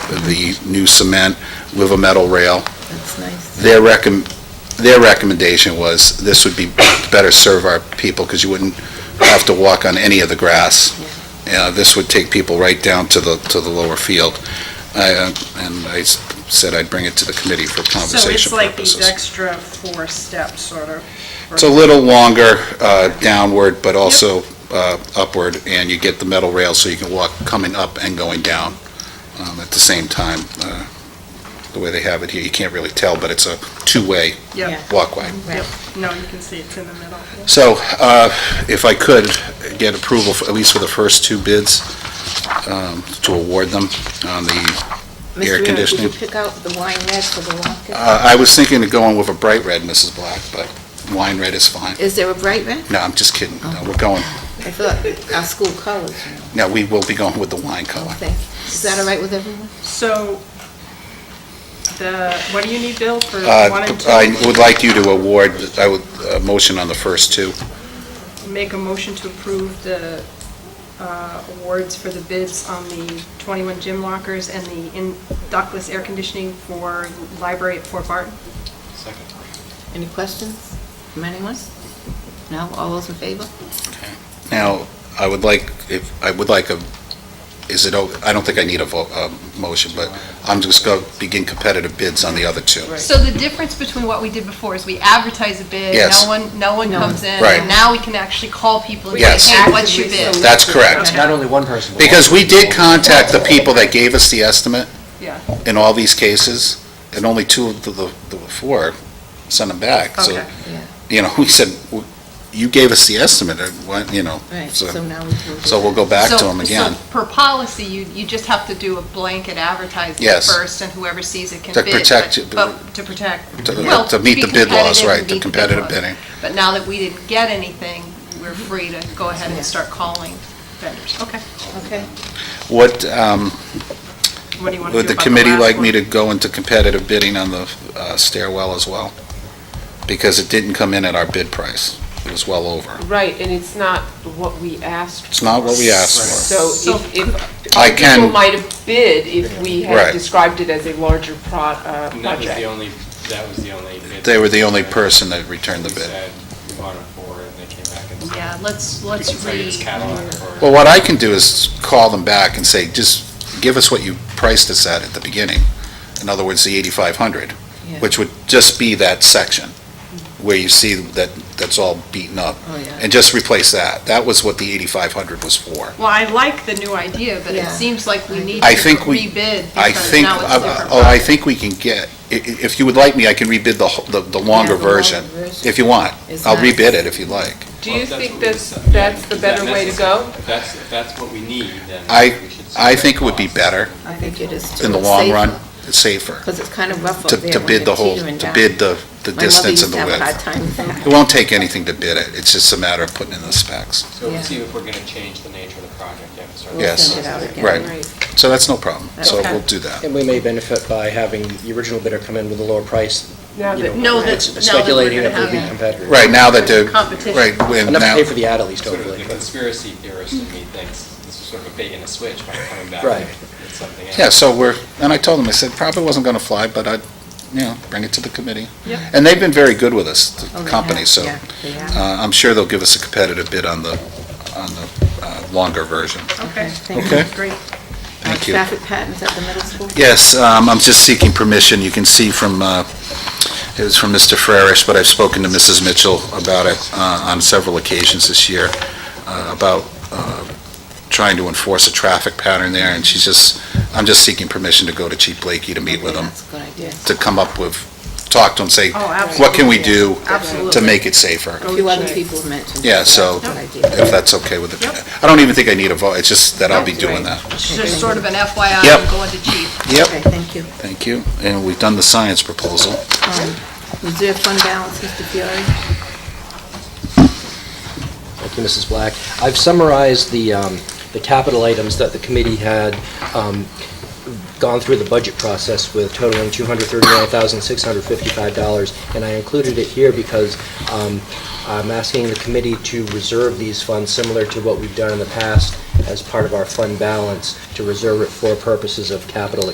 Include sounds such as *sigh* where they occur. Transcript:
the new cement with a metal rail. That's nice. Their recom, their recommendation was this would be better serve our people because you wouldn't have to walk on any of the grass. Uh, this would take people right down to the, to the lower field. I, uh, and I s- said I'd bring it to the committee for So conversation it's like these purposes. extra four steps, sort of. It's a little longer uh, downward, but also uh, upward, and you get the metal rail so you can walk coming up and going down um, at the same time. uh, The way they have it here, you can't really tell, but it's a two-way Yep, Yeah. walkway. yep. No, you can see it's in the middle. So uh, if I could get approval, for- at least for the first two bids, um, to award them on the, Mr. Air Mayor, conditioning. Did you pick out the wine red for the walk-in? uh, I was thinking of going with a bright red, Mrs. Black, but wine red is fine. Is there a bright red? No, I'm just kidding. No, We're going, I thought our school colors, you know, no, we will be going with the wine I color. think. Is that all right with everyone? So the, what do you need, Bill, for one Uh, and I two? would like you to award, I would, a motion on the first two. Make a motion to approve the uh, awards for the bids on the 21 gym lockers and the in- ductless air conditioning for library at Fort Barton. Any questions from anyone? No? All those in favor? Now, I would like, if, I would like a, is it, o- I don't think I need a vo, a motion, but I'm just gonna begin competitive bids on the other two. So the difference between what we did before is we advertise a bid, Yes. no one, no one comes in, Right. and now we can actually call people and Yes. say, hey, what's your bid? That's correct. Not only one person, but. Because we did multiple. contact the people that gave us the estimate Yeah. in all these cases, and only two of the, the the four sent them back. So, Okay. Yeah. you know, *laughs* we said, "W- you gave us the estimate, and what, you know, Right, so so, now we can do so we'll that. go back to So- them again. So per policy, you, you just have to do a blanket advertising Yes. first, and whoever sees it can To bid. protect but- it, But to protect. To- well, to meet be the bid laws, competitive right, and the meet the bid competitive laws. bidding. But now that we didn't get anything, we're free to go ahead and start calling vendors. Okay. Okay. What, um, What do you want to do Would the about committee last like me one? to go into competitive bidding on the uh, stairwell as well? Because it didn't come in at our bid price. It was well over. Right, and it's not what we asked. It's not what we asked for. So if, if, I other people can- might have bid if we Right. had described it as a larger pro, uh, And that was the project. only, that was the only bid. They were the only person that returned the We bid. said we bought it for, and they came back and said. Yeah, let's, "We can let's sell you this read. catalog for-" Well, what I can do is call them back and say, just give us what you priced us at at the beginning. In other words, the 8,500, Yeah. which would just be that section where you see that, that's all beaten up. Oh, yeah. And just replace that. That was what the 8,500 was for. Well, I like the new idea, but it Yeah. seems like we need to I think we- rebid I because think, now it's a I- different. oh, I product. think we can get, i- i- if you would like me, I can rebid the, whole- the- the longer Yeah, the longer version, version. if you want. It's I'll not- rebid it if you'd like. Do Well, you if that's think what we that's, decide- yeah, that's the is that better way to necessary? go? If that's, if that's what we need, then I- we should. I set think it the would be cost. better I think it is too. in the long run, it's safer, Because it's kind of rough up to there to when bid the they're whole, teetering to down. bid the the My mother distance used and the to have a hard width. time with that. It won't take anything to bid it, it's just a matter of putting in the specs. So Yeah. we'll see if we're going to change the nature of the project. You have to start- We'll Yes. send it out again. Right. So that's no problem, so Okay. we'll do that. And we may benefit by having the original bidder come in with a lower price. Now you that- Know that- it's now that we're Speculating gonna it would be have- competitive. Right, now that the, Competition. right, when Enough to now, pay for the ad at least, Sort of hopefully. the conspiracy theorist in me thinks this is sort of a bait and a switch by coming back Right. with something else. yeah, so we're, and I told them, I said, probably wasn't going to fly, but I'd, you know, bring it to the committee. And they've been very good with us, Oh, the they company, have, so yeah, they have. Uh, I'm sure they'll give us a competitive bid on the, on the uh, longer version. Okay, Thank you. Okay. great. Thank you. Traffic patterns at the middle school? Yes, um, I'm just seeking permission. You can see from, uh, it was from Mr. Frerish, but I've spoken to Mrs. Mitchell about it uh, on several occasions this year, uh, about uh, trying to enforce a traffic pattern there, and she's just, I'm just seeking permission to go to Chief Blakey to meet with him, That's a good idea. to come up with, talk to him, say, Oh, what can we do Absolutely. to make it safer? A few other people mentioned. Yeah, that. so- That's a good idea. If that's okay with Yep. the, I don't even think I need a vote, it's just that I'll be That's doing right. that. It's just sort of an FYI, Yep. I'm going to chief. Yep, Okay, thank you. thank you. And we've done the science proposal. Um, Reserve fund balance, Mr. Fiore? Thank you, Mrs. Black. I've summarized the, um, the capital items that the committee had um, gone through the budget process with totaling $239,655, and I included it here because um, I'm asking the committee to reserve these funds similar to what we've done in the past as part of our fund balance, to reserve it for purposes of capital